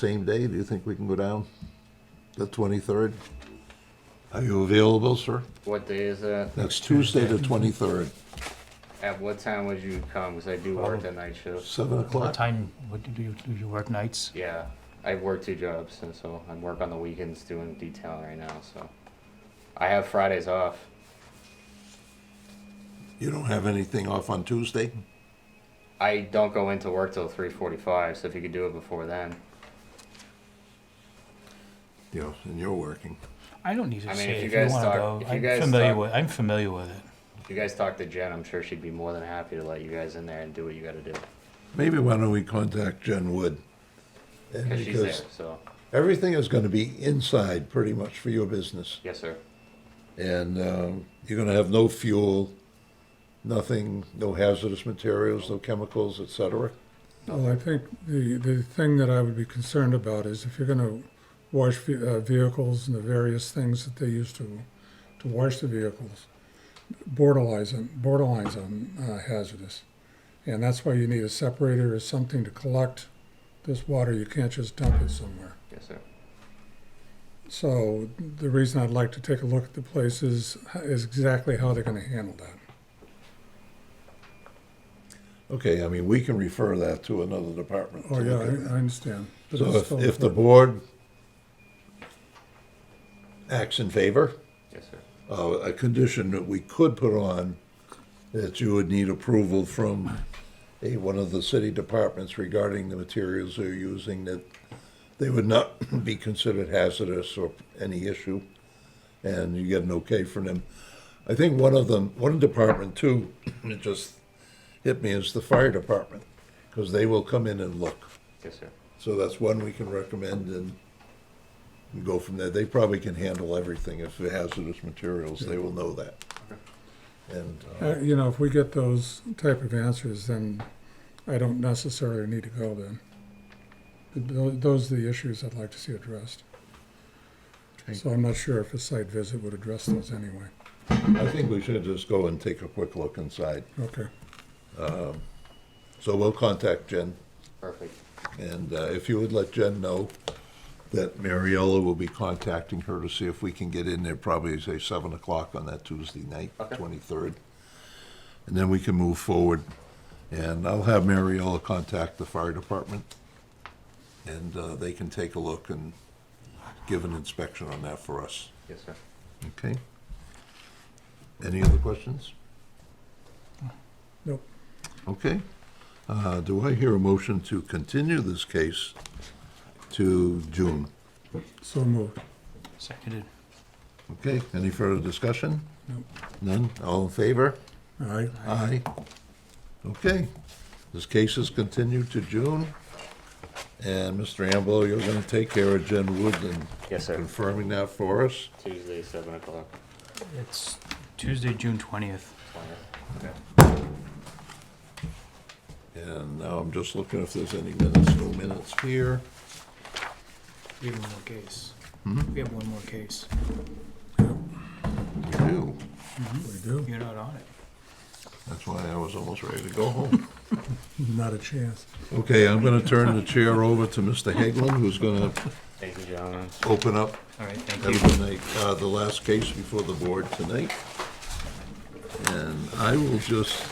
same day, do you think we can go down? The 23rd? Are you available, sir? What day is that? That's Tuesday, the 23rd, At what time would you come? Because I do work the night shift. 7 What o'clock. time, what do you, do you work nights? Yeah, I work two jobs, and so I work on the weekends doing detailing right now. So I have Fridays off. You don't have anything off on Tuesday? I don't go into work till three forty-five. So if you could do it before then, Yeah, and you're working. I don't need to I mean, say if you if you guys wanna talk- go, if you I'm guys familiar talk- with, I'm familiar with it. if you guys talk to Jen, I'm sure she'd be more than happy to let you guys in there and do what you got to do Maybe why don't we contact Jen Wood? And because she's there. because So everything is going to be inside pretty much for your business. yes, sir. And um, you're going to have no fuel, nothing, no hazardous materials, no chemicals, et cetera. Well, I think the, the thing that I would be concerned about is if you're gonna wash ve- uh, vehicles and the various things that they use to, to wash the vehicles, borderlines, on- borderlines on uh, hazardous. And that's why you need a separator or something to collect this water, you can't just dump it somewhere. Yes, sir. So the reason I'd like to take a look at the place is, is exactly how they're gonna handle that. Okay, I mean, we can refer that to another department. to Oh, yeah, look at that. I, I understand. But So it's if, still- if the board acts in favor, Yes, sir. uh, a condition that we could put on, that you would need approval from a, one of the city departments regarding the materials they're using, that they would not be considered hazardous or any issue, and you get an okay from them. I think one of them, one department too, it just hit me, is the fire department, because they will come in and look. Yes, sir. So that's one we can recommend and go from there. They probably can handle everything if it hazardous materials, they will know that. And, uh, Uh, You know, if we get those type of answers, then I don't necessarily need to go then. Th- tho- Those are the issues I'd like to see addressed. So I'm not sure if a site visit would address those anyway. uh, I think we should just go and take a quick look inside. Okay, So we'll contact Jen, Perfect. and uh, if you would let Jen know that Mariella will be contacting her to see if we can get in there probably, say, seven o'clock on that Tuesday night, Okay. twenty-third. And then we can move forward, and I'll have Mariella contact the fire department, and uh, they can take a look and give an inspection on that for us, Yes, sir. okay? Any other questions? nope. Okay. Uh, Do I hear a motion to continue this case to June? So moved. Seconded. Okay, any further discussion? Nope. None? All in favor? All right. Aye. Okay, this case is continued to June. And Mr. Amble, you're gonna take care of Jen Wood and Yes, sir. confirming that for us? Tuesday, seven o'clock. It's Tuesday, June twentieth. 20th. Okay. And now I'm just looking if there's any minutes, no minutes here. We have one more case. Hmm? We have one more case. We do. We do, You're not on it. That's why I was almost ready to go home. not a chance. Okay, I'm gonna turn the chair over to Mr. Haglund, who's gonna Thank you, gentlemen. open up All right, thank you. Have a good night. Uh, the last case before the board tonight. And I will just,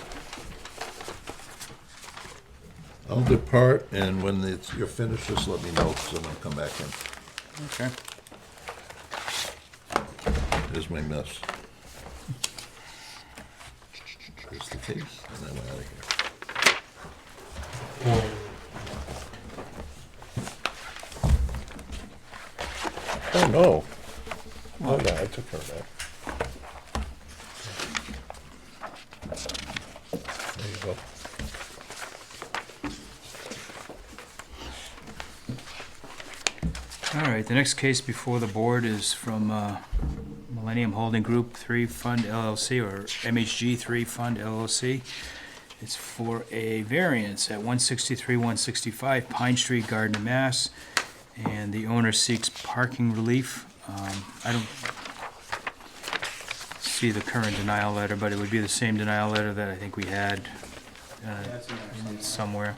I'll depart, and when it's, you're finished, just let me know, so I'll come back in. Okay. Here's my mess. Here's the case, and I'm out of here. Oh, no. Oh, no, I took care of that. There you go. All right, the next case before the board is from uh, Millennium Holding Group Three Fund LLC, or MHG Three Fund LLC. It's for a variance at one sixty-three, one sixty-five Pine Street, Gardner, Mass. And the owner seeks parking relief. Um, I don't see the current denial letter, but it would be the same denial letter that I think we had uh, somewhere.